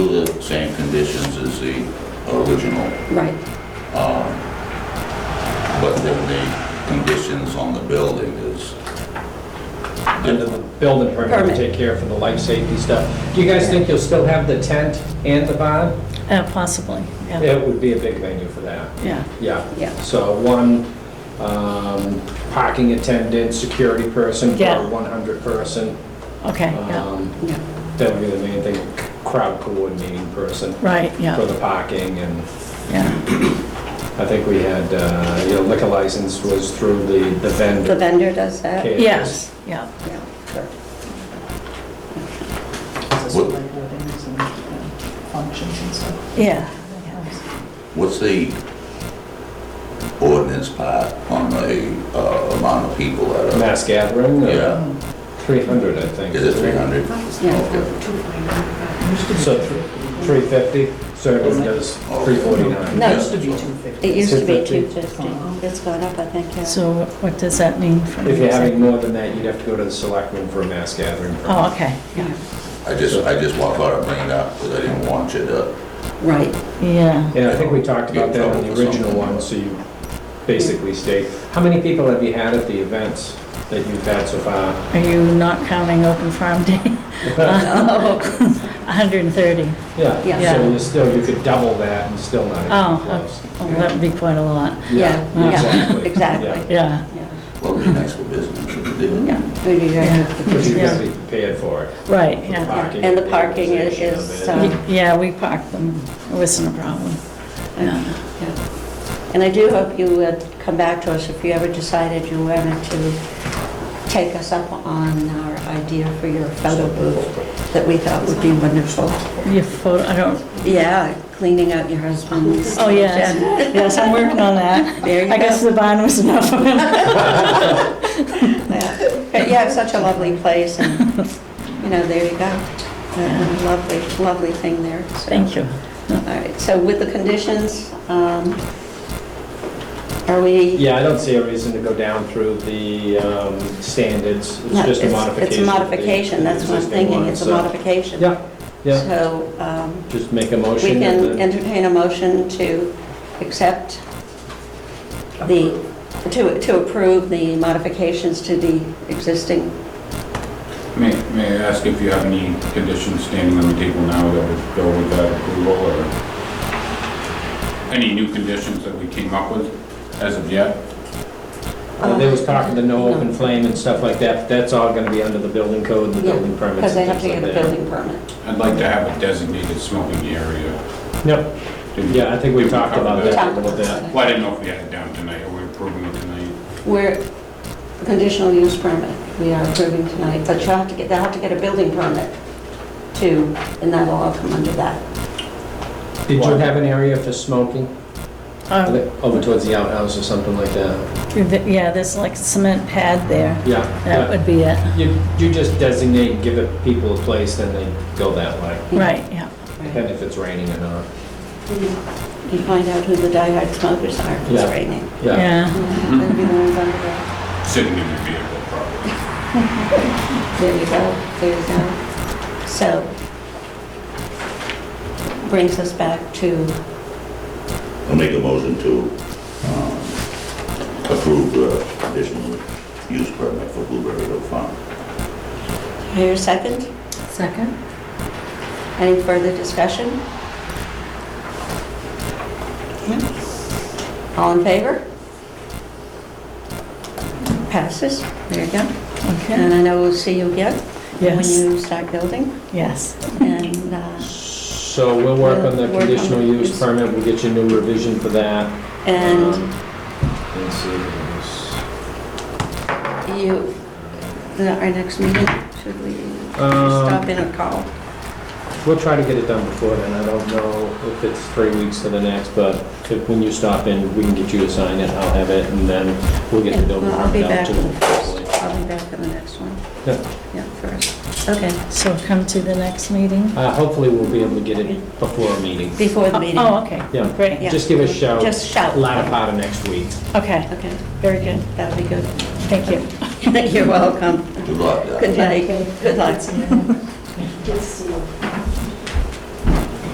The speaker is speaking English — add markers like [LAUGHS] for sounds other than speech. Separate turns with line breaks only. same conditions as the original,
Right,
but then the conditions on the building is,
under the building permit to
Permit.
take care of for the life safety stuff. Do you guys think you'll still have the tent and the barn?
Uh, Possibly, yeah.
It would be a big venue for that,
Yeah.
yeah.
Yeah.
So one um, parking attendant, security person,
Yeah.
per 100 person.
Okay, yeah,
Um,
yeah.
That would be the main thing, crowd coordinating person
right,
for
yeah,
the parking and
yeah,
I think we had, uh, you know, liquor license was through the the
The
vendor.
vendor does that?
Okay.
yes, yeah.
Yeah, sure.
It's a
What-
select board, and it's, um, functions and stuff.
Yeah.
what's the ordinance part on the uh, amount of people that are?
Mass gathering, uh,
Yeah,
300, I think.
is it 300?
Yeah.
Okay.
So thr- 350, so everyone does 349.
No.
It used to be 250.
It used to be
250.
250. It's gone up, I think, yeah.
So what does that mean for?
If you're having more than that, you'd have to go to the selectmen for a mass gathering. permit.
Oh, okay, yeah,
I just, I just wa- thought I'd bring it up because I didn't want you to,
Right,
yeah.
Yeah, I think we talked about that on
Get in trouble
the
for
original
something.
one, so you basically state, how many people have you had at the events that you've had so far?
Are you not counting open farm day? [LAUGHS] Uh, 130.
Yeah,
Yeah.
so you still, you could double that and still not
Oh,
even close.
oh, that would be quite a lot,
yeah, yeah,
Exactly.
exactly.
yeah.
Yeah.
well, it'd be nice for business if you did.
Yeah, we need
Yeah.
But you
to-
gotta be prepared for it.
Right,
for the
yeah.
parking
And the parking is-
organization
is,
of it.
uh,
Y- Yeah, we parked them, it wasn't a problem. Yeah.
yeah. And I do hope you would come back to us if you ever decided you wanted to take us up on our idea for your photo booth that we thought would be wonderful.
Your photo, I don't,
Yeah, cleaning out your husband's.
oh, yes, yes, I'm working on that.
There you go.
I guess the barn was enough [LAUGHS] of it.
Yeah. But yeah, it's such a lovely place and, you know, there you go. Uh, Lovely, lovely thing there. so.
Thank you.
All right, so with the conditions, um, are we?
Yeah, I don't see a reason to go down through the um, standards. It's
No,
just a modification.
It's a
of the-
modification, that's what I'm
existing
thinking,
one,
it's a
so-
modification.
Yeah, yeah,
So um,
just make a
we
motion. that
can
the-
entertain a motion to accept the, to to approve the modifications to the existing
May, may I ask if you have any conditions standing on the table now that would go with that approval or any new conditions that we came up with as of yet?
Uh, There was talk of the no open flame and stuff like that, but that's all gonna be under the building code and the
Yeah,
building permits.
Because they
and
have to
things
get a
like that.
building permit.
I'd like to have a designated smoking area.
Yep,
Did we-
yeah, I think we
did
talked
cover
about that a little bit.
Well, I didn't know if we had it down tonight or we're approving it tonight.
We're, conditional use permit, we are approving tonight, but you have to get, they'll have to get a building permit too, and that'll all come under that.
Did you have an area for smoking?
Um,
Over towards the outhouse or something like that?
th- Yeah, there's like a cement pad there,
Yeah.
that would be it,
You, you just designate, give it people a place, then they go that way,
right, yeah.
and if it's raining or not.
You find out who the diehard smokers are, if it's
Yeah.
raining.
Yeah,
They'll be the ones under there.
Sitting in the vehicle, probably.
There you go, there you go. So, brings us back to,
I'll make a motion to um, approve the conditional use permit for Blueberry Hill Farm.
here, second?
second?
Any further discussion? All in favor? Passes. There you go.
Okay,
And I know we'll see you again when
yes,
you start building.
yes,
And uh,
So we'll work on the
We'll work on
conditional
the-
use permit, we'll get you a new revision for that.
and
Um, Let's see, what
you, the- our next meeting, should we
Um,
stop in or call?
else. we'll try to get it done before then, I don't know if it's three weeks to the next, but if- when you stop in, we can get you to sign it, I'll have it, and then we'll get the
Yeah,
building
well, I'll be
permit out
back
to
on the
them.
first. I'll be back on the next one.
Yeah.
Yeah, first. Okay,
so come to the next meeting?
Uh, Hopefully, we'll be able to get it before a meeting.
before the meeting.
Oh, okay,
Yeah.
great,
Yeah.
Just give us a shout,
Just shout.
latter part of next week.
okay,
Okay,
very good,
that'll be good.
thank you.
[LAUGHS] You're welcome.
Good luck, Doc.
Good night. Good luck.
Good to see you.